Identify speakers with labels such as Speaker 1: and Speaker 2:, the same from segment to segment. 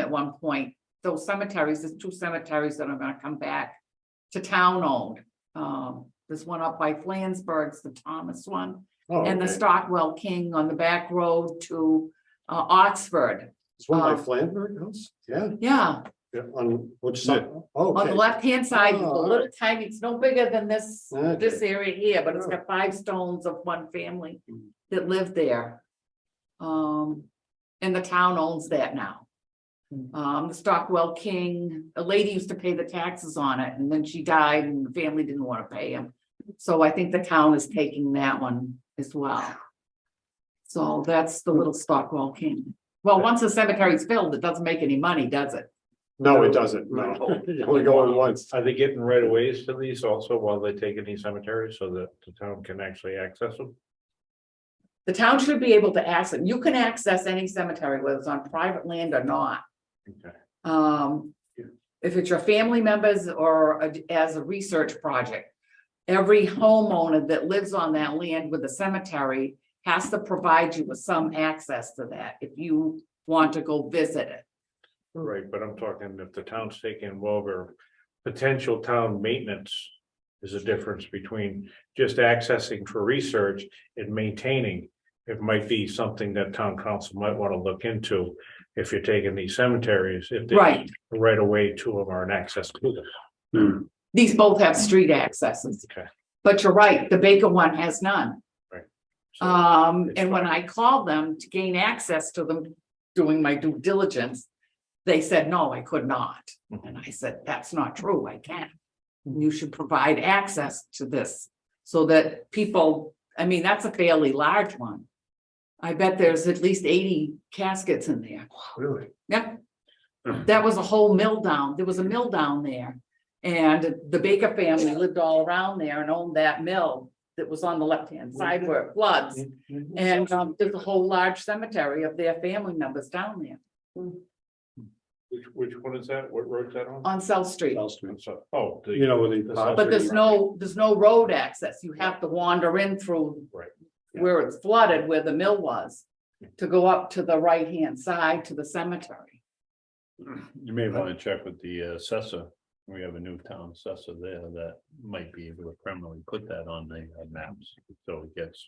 Speaker 1: at one point, those cemeteries, there's two cemeteries that are gonna come back to town owned. Um, there's one up by Flansburgh's, the Thomas one,
Speaker 2: Oh,
Speaker 1: and the
Speaker 2: okay.
Speaker 1: Stockwell King on the back road to uh, Oxford.
Speaker 2: It's one by
Speaker 1: um,
Speaker 2: Flandberg House, yeah,
Speaker 1: Yeah,
Speaker 2: yeah, on which side? Oh,
Speaker 1: on the
Speaker 2: Okay,
Speaker 1: left-hand side, it's a
Speaker 2: Oh,
Speaker 1: little tiny, it's no bigger than this,
Speaker 2: Okay.
Speaker 1: this area here, but it's got five stones of one family
Speaker 2: Mm.
Speaker 1: that lived there. Um, and the town owns that now.
Speaker 2: Hmm.
Speaker 1: Um, the Stockwell King, a lady used to pay the taxes on it, and then she died and the family didn't wanna pay him. So I think the town is taking that one as well. So that's the little Stockwell King. Well, once the cemetery's filled, it doesn't make any money, does it?
Speaker 2: no, it doesn't, no,
Speaker 3: No.
Speaker 2: you only go in once, Oh,
Speaker 3: Are they getting right of ways to these also while they're taking these cemeteries so that the town can actually access them?
Speaker 1: The town should be able to access, you can access any cemetery, whether it's on private land or not.
Speaker 3: Okay.
Speaker 1: Um,
Speaker 2: Yeah.
Speaker 1: if it's your family members or a- as a research project. Every homeowner that lives on that land with a cemetery has to provide you with some access to that if you want to go visit it.
Speaker 3: Right, but I'm talking if the town's taking over, potential town maintenance. Is a difference between just accessing for research and maintaining. It might be something that town council might want to look into if you're taking these cemeteries, if they
Speaker 1: Right,
Speaker 3: right away to them or an access to them.
Speaker 1: these both have street accesses.
Speaker 3: Okay.
Speaker 1: But you're right, the Baker one has none.
Speaker 3: So-
Speaker 1: Um,
Speaker 3: it's
Speaker 1: and when
Speaker 3: fine.
Speaker 1: I called them to gain access to them, doing my due diligence, they said, no, I could not.
Speaker 3: Mhm.
Speaker 1: And I said, that's not true, I can. You should provide access to this so that people, I mean, that's a fairly large one. I bet there's at least eighty caskets in there.
Speaker 3: Really?
Speaker 1: Yep. That was a whole mill down, there was a mill down there. And the Baker family lived all around there and owned that mill that was on the left-hand side where it floods.
Speaker 2: Mm-hmm.
Speaker 1: And um, there's a whole large cemetery of their family members down there
Speaker 3: Which, which one is that? What road's that on?
Speaker 1: on South Street.
Speaker 3: So- Oh, the-
Speaker 2: you know, when they.
Speaker 3: But
Speaker 2: pop
Speaker 1: But
Speaker 2: it.
Speaker 1: there's no, there's no road access. You have to wander in through
Speaker 3: Right. Yeah.
Speaker 1: where it's flooded, where the mill was, to go up to the right-hand side to the cemetery.
Speaker 4: You may want to check with the assessor. We have a new town assessor there that might be able to permanently put that on the uh, maps. So it gets,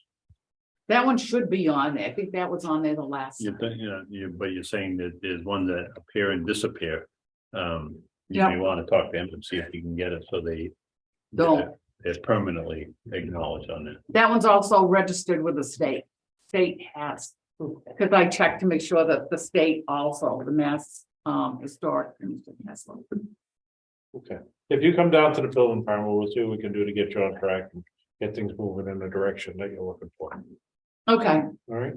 Speaker 1: That one should be on there. I think that was on there the last.
Speaker 4: you
Speaker 1: time.
Speaker 4: think, you know, you, but you're saying that there's ones that appear and disappear. Um, you
Speaker 1: Yeah.
Speaker 4: may want to talk to them and see if you can get it so they.
Speaker 1: Don't.
Speaker 4: It's permanently acknowledged on it.
Speaker 1: That one's also registered with the state. State has, because I checked to make sure that the state also, the Mass um Historic Commission has one.
Speaker 3: If you come down to the building department, we'll see what we can do to get you on track and get things moving in the direction that you're looking for.
Speaker 1: Okay, I'm
Speaker 3: All right?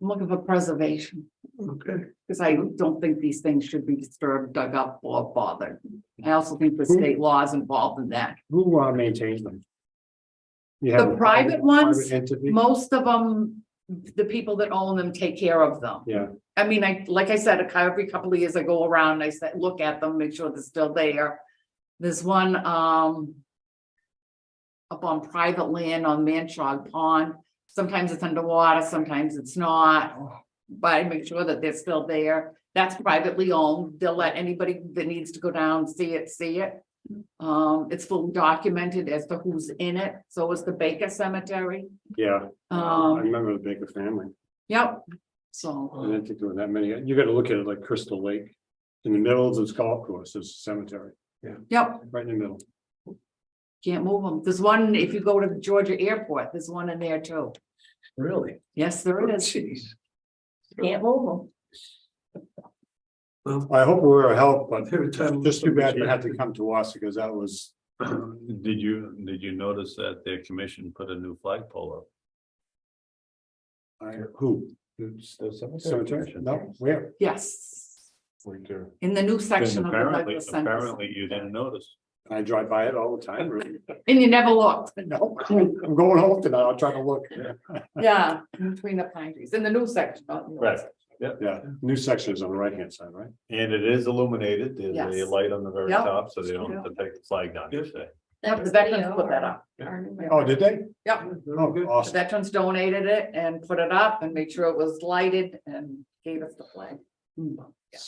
Speaker 1: looking for preservation.
Speaker 3: Okay.
Speaker 1: Because I don't think these things should be disturbed, dug up or bothered. I also think the state law is involved in that.
Speaker 2: Who uh maintains them? You have
Speaker 1: The
Speaker 2: a
Speaker 1: private ones,
Speaker 2: private Entity,
Speaker 1: most of them, the people that own them take care of them.
Speaker 2: yeah,
Speaker 1: I mean, I, like I said, a cou- every couple of years I go around, I said, look at them, make sure they're still there. There's one, um. Up on private land on Manchog Pond, sometimes it's underwater, sometimes it's not. But I make sure that they're still there, that's privately owned, they'll let anybody that needs to go down, see it, see it. Um, it's fully documented as to who's in it, so is the Baker Cemetery,
Speaker 2: yeah, I
Speaker 1: um, Oh.
Speaker 2: remember the Baker family,
Speaker 1: yep, so,
Speaker 2: I didn't think there were that many, you gotta look at it like Crystal Lake. In the middle of this golf course, there's a cemetery,
Speaker 1: yep.
Speaker 2: right in the middle.
Speaker 1: Can't move them. There's one, if you go to the Georgia airport, there's one in there too.
Speaker 3: Really?
Speaker 1: Yes, there is. Can't move them.
Speaker 2: I hope we were a help, but
Speaker 5: Every time-
Speaker 2: just too bad it had to come to us because that was,
Speaker 4: Did you, did you notice that their commission put a new flagpole up?
Speaker 2: I, who? Cemetery, no, where?
Speaker 1: Yes,
Speaker 3: Right there.
Speaker 1: in the new section
Speaker 4: And
Speaker 1: of the
Speaker 4: Apparently,
Speaker 1: Douglas Center.
Speaker 4: apparently you didn't notice.
Speaker 2: I drive by it all the time, really.
Speaker 1: And you never looked.
Speaker 2: No, I'm going home tonight, I'll try to look,
Speaker 1: Yeah, between the pine trees, in the new section. not the old
Speaker 4: Right.
Speaker 1: section.
Speaker 2: yeah, new sections on the right hand side, right?
Speaker 4: And it is illuminated, there's a
Speaker 1: Yes.
Speaker 4: light on the very
Speaker 1: Yep.
Speaker 4: top, so they don't have to take the flag down, you say.
Speaker 1: Yep, the uh, veterans put that up.
Speaker 2: Oh, did they?
Speaker 1: Yep,
Speaker 2: Oh,
Speaker 1: the
Speaker 2: awesome,
Speaker 1: veterans Hmm. donated it and put it up and made sure it was lighted and gave us the flag.